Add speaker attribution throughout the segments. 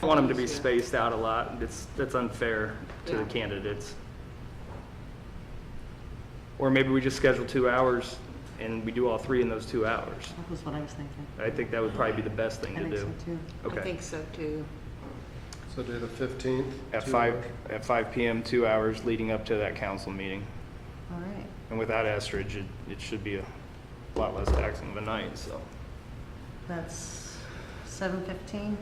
Speaker 1: I want them to be spaced out a lot. It's, that's unfair to the
Speaker 2: Yeah.
Speaker 1: candidates. Or maybe we just schedule two hours and we do all three in those two hours.
Speaker 3: That was what I was thinking.
Speaker 1: I think that would probably be the best thing
Speaker 3: I
Speaker 1: to
Speaker 3: think so
Speaker 1: do.
Speaker 3: too.
Speaker 2: I
Speaker 1: Okay.
Speaker 2: think so too.
Speaker 4: So do the 15th.
Speaker 1: At
Speaker 4: two-
Speaker 1: five, at five PM, two hours leading up to that council meeting.
Speaker 3: All right.
Speaker 1: And without Estridge, it, it should be a lot less taxing of a night, so.
Speaker 3: That's seven fifteen.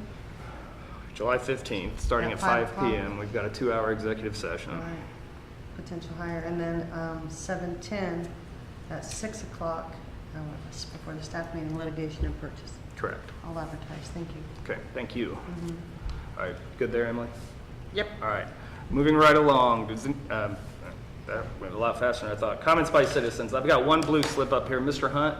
Speaker 1: July fifteenth, starting
Speaker 3: At
Speaker 1: at
Speaker 3: five
Speaker 1: five
Speaker 3: o'clock?
Speaker 1: PM, we've got a two-hour executive session.
Speaker 3: All right. Potential hire. And then um, seven ten at six o'clock um, before the staff meeting, litigation and purchase.
Speaker 1: Correct.
Speaker 3: I'll advertise. Thank you.
Speaker 1: Okay, thank you.
Speaker 3: Mm-hmm.
Speaker 1: All right, good there, Emily?
Speaker 3: Yep.
Speaker 1: All right, moving right along, Does- um, that went a lot faster than I thought. Comments by citizens, I've got one blue slip up here, Mr. Hunt?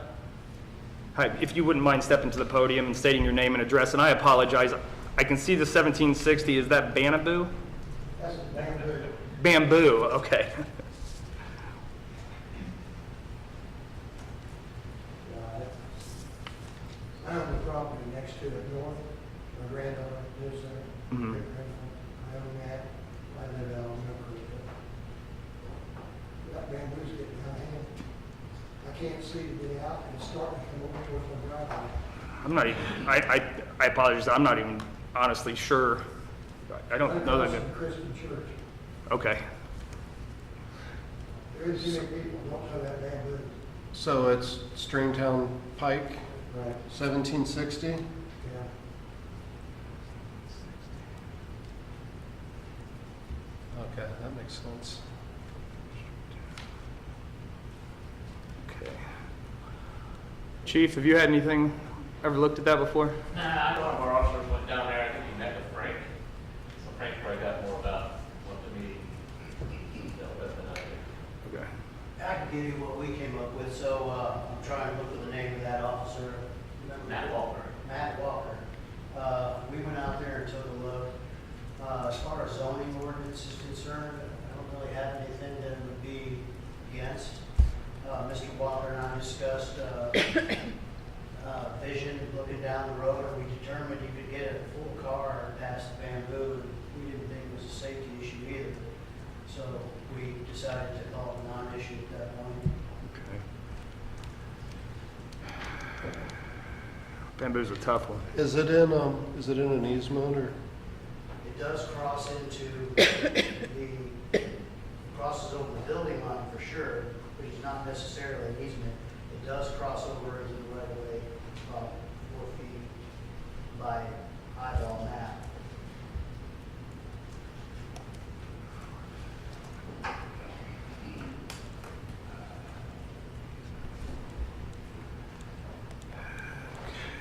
Speaker 1: Hi, if you wouldn't mind stepping to the podium and stating your name and address, and I apologize, I can see the 1760, is that Banaboo? That's bamboo. Bamboo, okay.
Speaker 5: I own the property next to it north, my granddaughter lives there.
Speaker 1: Mhm.
Speaker 5: I own that, I live out on Mill Creek. That bamboo's getting out of hand. I can't see to get out and start to come over towards my driveway.
Speaker 1: I'm not even, I, I, I apologize, I'm not even honestly sure. I don't know
Speaker 5: Across
Speaker 1: that,
Speaker 5: from Christian church.
Speaker 1: okay.
Speaker 5: There is many people who don't know that bamboo.
Speaker 4: So it's Stringtown Pike,
Speaker 5: Right.
Speaker 4: 1760.
Speaker 5: Yeah.
Speaker 4: Okay, that makes sense.
Speaker 1: Okay. Chief, have you had anything, ever looked at that before?
Speaker 6: Nah, one of our officers went down there, I think he met with Frank. So Frank probably got more about what the meeting dealt with than I did.
Speaker 1: Okay.
Speaker 7: I can give you what we came up with, so, uh, I'm trying to look for the name of that officer. Remember-
Speaker 6: Matt Walker.
Speaker 7: Matt Walker. Uh, we went out there and took a look. Uh, as far as zoning ordinance is concerned, I don't really have anything that would be against. Uh, Mr. Walker and I discussed, uh, uh, vision looking down the road, and we determined you could get a full car past the bamboo, and we didn't think it was a safety issue either. So we decided to call it a non-issue at that point.
Speaker 1: Okay. Bamboo's a tough one.
Speaker 4: Is it in, um, is it in an easement or?
Speaker 7: It does cross into the, crosses over the building line for sure, which is not necessarily an easement. It does cross over into the right of way, about four feet by eyeball map.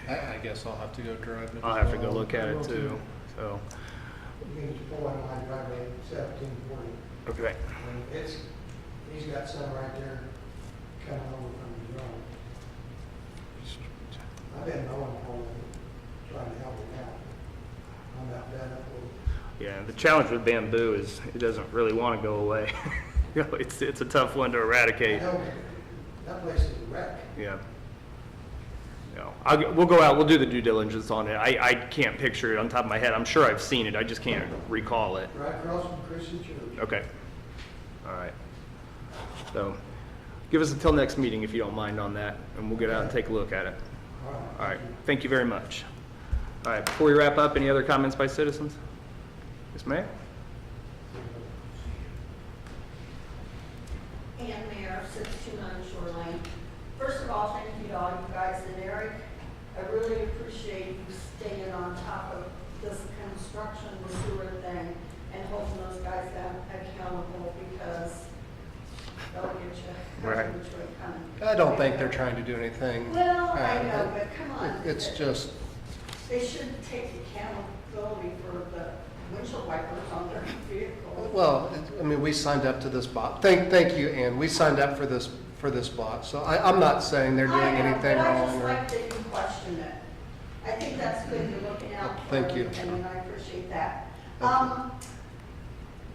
Speaker 4: I, I guess I'll have to go drive it.
Speaker 1: I'll have to go look at it too, so,
Speaker 5: You can just pull on my driveway seventeen forty.
Speaker 1: okay.
Speaker 5: And It's, he's got some right there coming over from the road. I've been mowing for him, trying to help him out. I'm not done up with,
Speaker 1: Yeah, the challenge with bamboo is it doesn't really want to go away. You know, It's, it's a tough one to
Speaker 5: I
Speaker 1: eradicate,
Speaker 5: know that place is a wreck.
Speaker 1: yeah. No, I'll, g- we'll go out, we'll do the due diligence on it. I, I can't picture it on top of my head. I'm sure I've seen it, I just can't recall it.
Speaker 5: Right across from Christian Church.
Speaker 1: Okay. All right. So, give us until next meeting if you don't mind on that, and we'll get out and take a look at it.
Speaker 5: All right.
Speaker 1: All right, thank you very much. All right, before we wrap up, any other comments by citizens? Yes, ma'am?
Speaker 8: And Mayor, 629 Shoreline. First of all, thank you to all you guys and Eric. I really appreciate you staying on top of this construction sewer thing and holding those guys a- accountable because they'll get you. they'll
Speaker 1: Right.
Speaker 8: get you coming.
Speaker 4: I don't think they're trying to do anything.
Speaker 8: Well, I
Speaker 4: bad.
Speaker 8: know, but come on.
Speaker 4: It- It's just,
Speaker 8: They should take accountability for the windshield wipers on their vehicle.
Speaker 4: well, it- I mean, we signed up to this bot. Thank, thank you, Ann. We signed up for this, for this bot. So I, I'm not saying they're doing
Speaker 8: I know,
Speaker 4: anything
Speaker 8: but
Speaker 4: wrong
Speaker 8: I
Speaker 4: or.
Speaker 8: just like that you question it. I think that's good, you're looking out for
Speaker 4: Thank you.
Speaker 8: everything, And I appreciate that.
Speaker 4: Thank you.
Speaker 8: Um,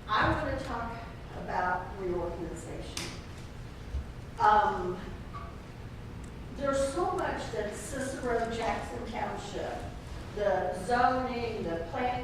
Speaker 8: I want to talk about reorganization. Um, there's so much that Cicero, Jackson Township, the zoning, the planning